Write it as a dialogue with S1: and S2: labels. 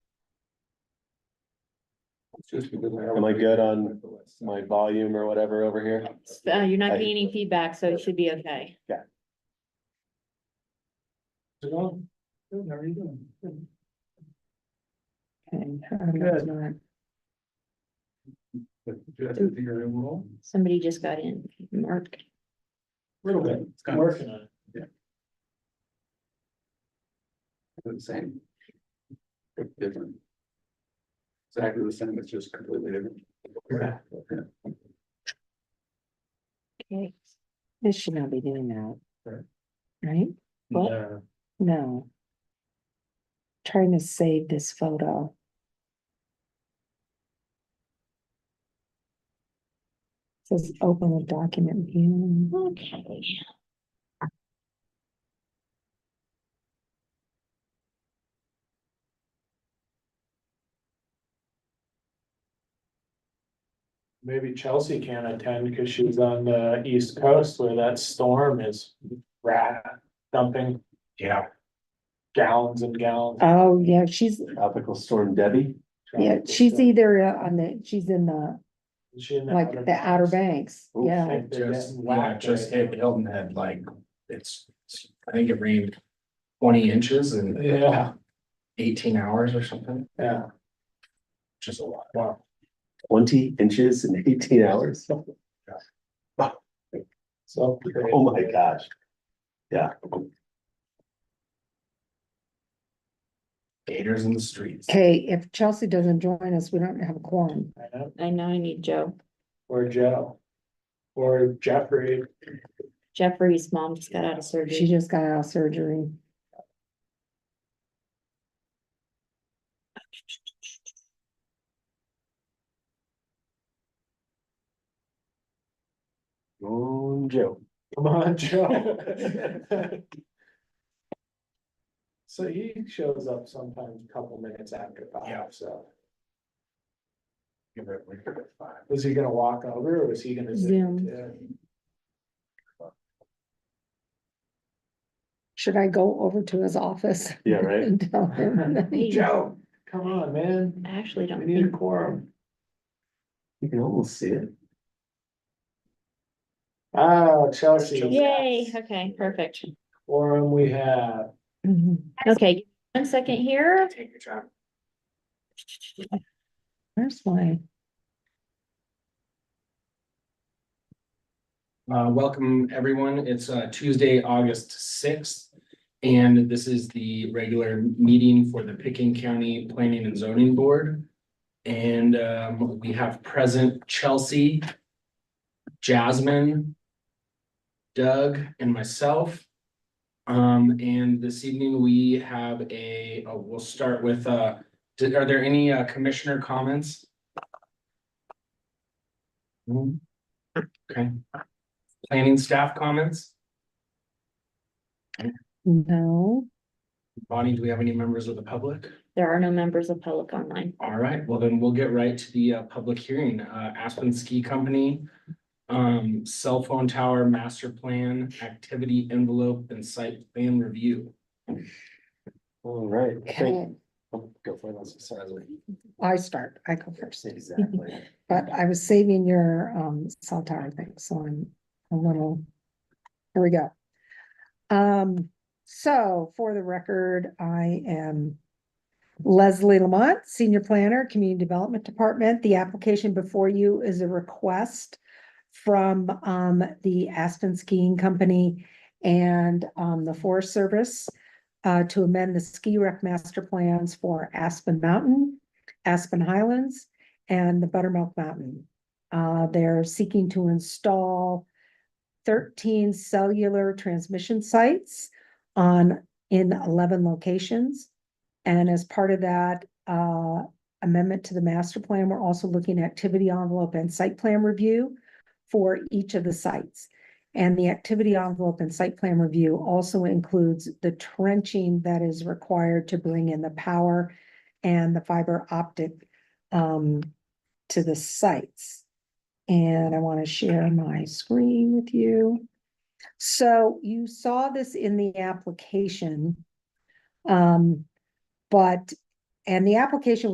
S1: Just because I have-
S2: Am I good on my volume or whatever over here?
S3: Uh, you're not getting any feedback, so it should be okay.
S1: Good, how are you doing? Good.
S3: Okay.
S1: But do you have to do your own role?
S3: Somebody just got in, Mark.
S1: Little bit. It's kind of-
S4: Working on it.
S1: the same. But Different. Exactly the same, it's just completely different.
S4: Yeah.
S5: Okay, this should not be doing
S4: Right.
S5: that. Right? What?
S4: No.
S5: No. Trying to save this photo. Says open with document view.
S3: Okay.
S4: Maybe Chelsea can't attend because she's on the east coast where that storm is rat dumping. Yeah. Gallons and gallons.
S5: Oh, yeah, she's,
S2: Tropical storm Debbie?
S5: yeah, she's either uh, on the, she's in the,
S4: Is she in the
S5: like, the Outer Banks,
S2: Ooh.
S5: yeah.
S4: Like, they're
S6: Just,
S4: getting
S6: yeah,
S4: whacked
S6: just
S4: right
S6: hit
S4: now.
S6: Hilton Head, like, it's, I think it rained twenty inches in
S4: Yeah,
S6: eighteen hours or something,
S4: yeah,
S6: which is a lot.
S4: wow.
S2: Twenty inches in eighteen hours?
S4: So.
S2: Oh my gosh. Yeah,
S6: Gators in the streets.
S5: Okay, if Chelsea doesn't join us, we don't have a quorum.
S4: I know.
S3: I know I need Joe.
S4: Or Joe. Or Jeffrey.
S3: Jeffrey's mom just got out of
S5: She
S3: surgery.
S5: just got out of surgery.
S2: oh, Joe.
S4: Come on, Joe. So he shows up sometimes a couple minutes after
S6: Yeah.
S4: five, so
S6: Give it- we give it five.
S4: was he gonna walk over or was he gonna?
S3: Zoom.
S4: Yeah.
S5: Should I go over to his office?
S2: Yeah, right?
S5: and tell him that he-
S4: Joe, come on, man,
S3: I actually
S4: we
S3: don't
S4: need a
S3: think,
S4: quorum.
S2: You can almost see it.
S4: Ah, Chelsea.
S3: yay,
S4: yes.
S3: okay, perfect.
S4: Quorum we have.
S5: Mhm.
S3: Okay, one second here.
S6: Take your job.
S5: Where's my?
S6: Uh, welcome, everyone. It's uh, Tuesday, August sixth. And this is the regular meeting for the Picking County Planning and Zoning Board. And um, we have present Chelsea, Jasmine, Doug, and myself. Um, and this evening we have a, uh, we'll start with, uh, did- are there any uh, commissioner comments? No? Okay. Planning staff comments?
S5: No,
S6: Bonnie, do we have any members of the public?
S3: There are no members of public online.
S6: All right, well then we'll get right to the uh public hearing. Uh Aspen Ski Company. Um cell phone tower master plan, activity envelope and site plan review.
S2: All right. thank-
S5: okay,
S2: oh, Go for it. Sorry.
S5: I start, I go first,
S2: Exactly.
S5: but I was saving your um cell tower thing, so I'm a little. Here we go. Um, so for the record, I am. Leslie Lamont, Senior Planner, Community Development Department. The application before you is a request. From um the Aspen Skiing Company and um the Forest Service. uh, to amend the ski rec master plans for Aspen Mountain, Aspen Highlands, and the Buttermilk Mountain. Uh, they're seeking to install thirteen cellular transmission sites on, in eleven locations. And as part of that, uh, amendment to the master plan, we're also looking at activity envelope and site plan review for each of the sites. And the activity envelope and site plan review also includes the trenching that is required to bring in the power and the fiber optic um, to the sites. And I want to share my screen with you. So you saw this in the application. Um, but, and the application